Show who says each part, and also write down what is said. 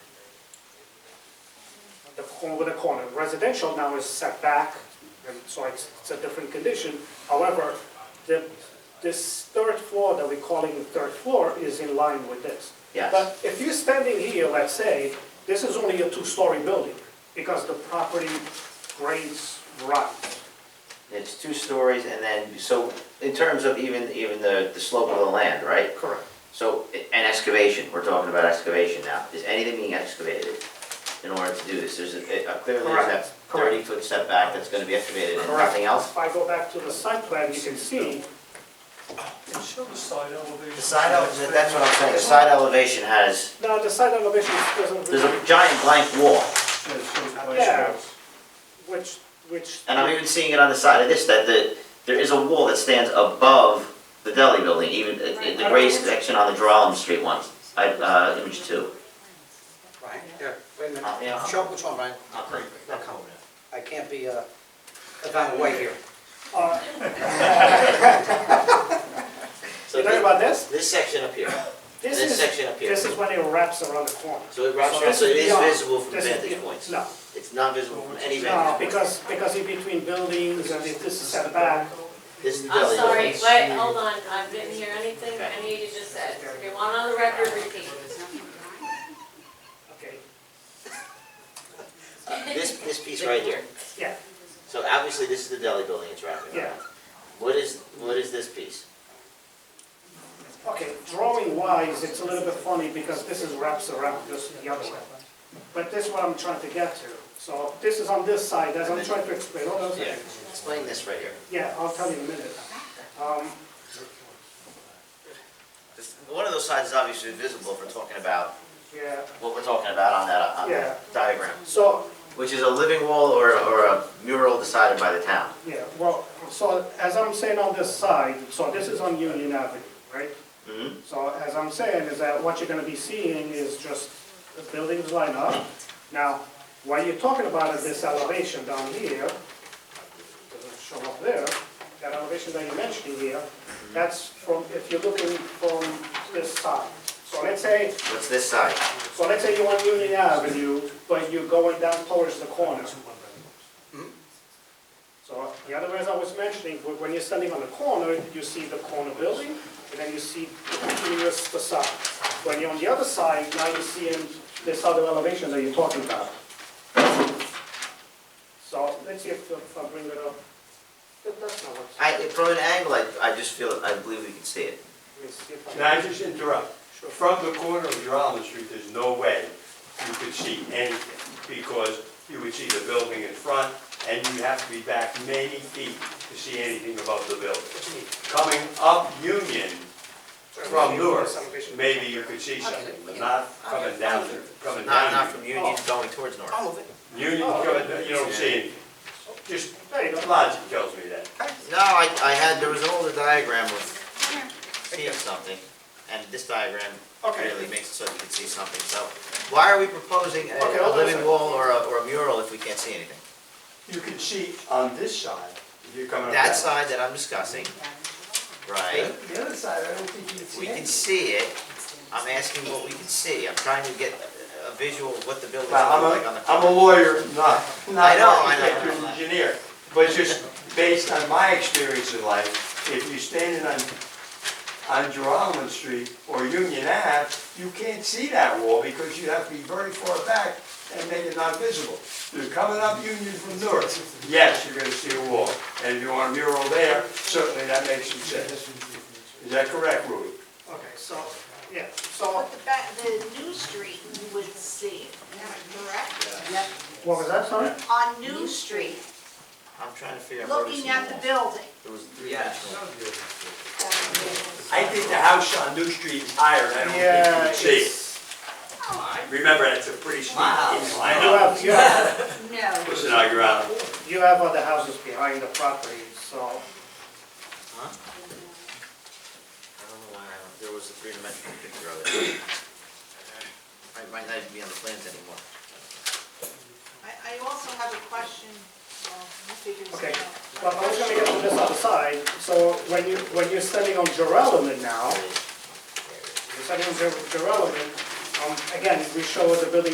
Speaker 1: corner with a corner. Residential now is set back, and so it's, it's a different condition. However, the, this third floor that we're calling the third floor is in line with this.
Speaker 2: Yes.
Speaker 1: But if you're standing here, let's say, this is only a two-story building, because the property grades right.
Speaker 2: It's two stories and then, so in terms of even, even the, the slope of the land, right?
Speaker 1: Correct.
Speaker 2: So, and excavation, we're talking about excavation now. Is anything being excavated in order to do this? There's a, a- clearly there's that
Speaker 1: Correct, correct.
Speaker 2: thirty foot setback that's gonna be excavated and
Speaker 1: Correct.
Speaker 2: nothing else?
Speaker 1: If I go back to the site plan, you can see,
Speaker 3: Can show the side elevation.
Speaker 2: The side, ele- that's what I'm saying, the side elevation has,
Speaker 1: now the site elevation doesn't.
Speaker 2: there's a giant blank wall.
Speaker 3: Yeah, it shows the
Speaker 1: Yeah.
Speaker 3: place.
Speaker 1: Which, which.
Speaker 2: And I'm even seeing it on the side of this, that the, there is a wall that stands above the deli building, even the- the gray section on the Drolam Street one, I, uh, image two.
Speaker 4: Right, yeah, wait a
Speaker 2: Uh, yeah.
Speaker 4: minute, show which one, Ryan,
Speaker 2: I'll bring it.
Speaker 4: No, come on. I can't be, uh, about away here.
Speaker 1: Uh,
Speaker 5: So
Speaker 1: You talking
Speaker 5: thi-
Speaker 1: about this?
Speaker 5: this section up here,
Speaker 1: This
Speaker 5: This
Speaker 1: is-
Speaker 5: section up here.
Speaker 1: This is when it wraps around the corner.
Speaker 5: so it wraps
Speaker 1: So
Speaker 5: around,
Speaker 1: this
Speaker 5: so it is
Speaker 1: is beyond-
Speaker 5: visible from
Speaker 1: this is
Speaker 5: vantage
Speaker 1: beyond-
Speaker 5: points.
Speaker 1: No,
Speaker 5: It's not visible from any
Speaker 1: no,
Speaker 5: vantage point.
Speaker 1: because, because in between buildings and if this is set back,
Speaker 5: This is the
Speaker 6: I'm
Speaker 5: deli.
Speaker 6: sorry, wait, hold on, I didn't hear anything any of you just said. You want on the record, repeat.
Speaker 1: okay,
Speaker 5: Uh, This, this piece right here,
Speaker 1: yeah,
Speaker 5: so obviously this is the deli building it's wrapping
Speaker 1: yeah.
Speaker 5: around. What is, what is this piece?
Speaker 1: Okay, drawing wise, it's a little bit funny because this is wraps around this the other way. But this is what I'm trying to get to. So this is on this side, as I'm trying to explain, hold on a
Speaker 5: Yeah,
Speaker 1: second.
Speaker 5: explain this right here.
Speaker 1: Yeah, I'll tell you in a minute. Um,
Speaker 2: This- One of those sides is obviously visible if we're talking about
Speaker 1: yeah,
Speaker 2: what we're talking about on that, on
Speaker 1: Yeah.
Speaker 2: that diagram,
Speaker 1: so
Speaker 2: which is a living wall or, or a mural decided by the town.
Speaker 1: Yeah, well, so as I'm saying on this side, so this is on Union Avenue, right?
Speaker 2: Mhm.
Speaker 1: So as I'm saying is that what you're gonna be seeing is just the buildings line up. Now, what you're talking about is this elevation down here, doesn't show up there, that elevation that you're mentioning here, that's from, if you're looking from this side. So let's say,
Speaker 2: What's this side?
Speaker 1: so let's say you're on Union Avenue, but you're going down towards the corner. So the other ways I was mentioning, wh- when you're standing on the corner, you see the corner building, and then you see continuous facade. When you're on the other side, now you're seeing this other elevation that you're talking about. So let's see if if I bring it up. That- That's not what,
Speaker 2: I, from an angle, I, I just feel, I believe we can see it.
Speaker 1: let me see if I.
Speaker 7: Can I just interrupt? From the corner of Drummond Street, there's no way you could see anything, because you would see the building in front, and you have to be back many feet to see anything above the building. Coming up Union from north, maybe you could see something, but not coming down, coming
Speaker 2: Not, not
Speaker 7: down.
Speaker 2: from Union
Speaker 1: Oh.
Speaker 2: going towards north.
Speaker 7: Union, you don't- you don't see anything. Just
Speaker 1: There you go.
Speaker 7: logic tells me that.
Speaker 2: No, I, I had, there was an older diagram of seeing something, and this diagram
Speaker 7: Okay.
Speaker 2: really makes it so you can see something, so. Why are we proposing a,
Speaker 1: Okay,
Speaker 2: a
Speaker 1: hold on a
Speaker 2: living
Speaker 1: second.
Speaker 2: wall or a, or a mural if we can't see anything?
Speaker 7: You can see on this side, if you're coming up.
Speaker 2: That side that I'm discussing, right,
Speaker 7: The other side, I don't think you can
Speaker 2: we can see it, I'm asking what we can see, I'm trying to get a- a visual of what the building's
Speaker 7: Well,
Speaker 2: look like on
Speaker 7: I'm
Speaker 2: the.
Speaker 7: a, I'm a lawyer, not, not
Speaker 2: I
Speaker 7: an
Speaker 2: know, I know,
Speaker 7: architect or
Speaker 2: I know.
Speaker 7: engineer, but just based on my experience in life, if you're standing on, on Jerome Street or Union Ave, you can't see that wall because you have to be very far back and make it not visible. You're coming up Union from north, yes, you're gonna see a wall, and if you want a mural there, certainly that makes some sense. Is that correct, Rudy?
Speaker 1: Okay, so, yeah, so,
Speaker 8: But the back, the New Street, you would see it, correct?
Speaker 1: what was that, sorry?
Speaker 8: On New Street,
Speaker 2: I'm trying to figure out where this
Speaker 8: looking at the building.
Speaker 2: There was three-dimensional.
Speaker 7: I think the house on New Street is higher, and I
Speaker 1: Yeah,
Speaker 7: don't think you can see it.
Speaker 1: it's,
Speaker 8: Oh,
Speaker 7: Remember, that's a pretty steep hill, I
Speaker 1: you
Speaker 7: know.
Speaker 1: have, you have
Speaker 8: No.
Speaker 7: Listen, I grew up.
Speaker 1: You have other houses behind the property, so,
Speaker 2: I don't know why, I don't- there was a three-dimensional picture of it. It might not even be on the plans anymore.
Speaker 8: I, I also have a question, well, you figure it
Speaker 1: Okay.
Speaker 8: out.
Speaker 1: but I was gonna get to this other side, so when you, when you're standing on Geralman now,
Speaker 2: There it is. There it is.
Speaker 1: you're standing on Geralman, um, again, we show the building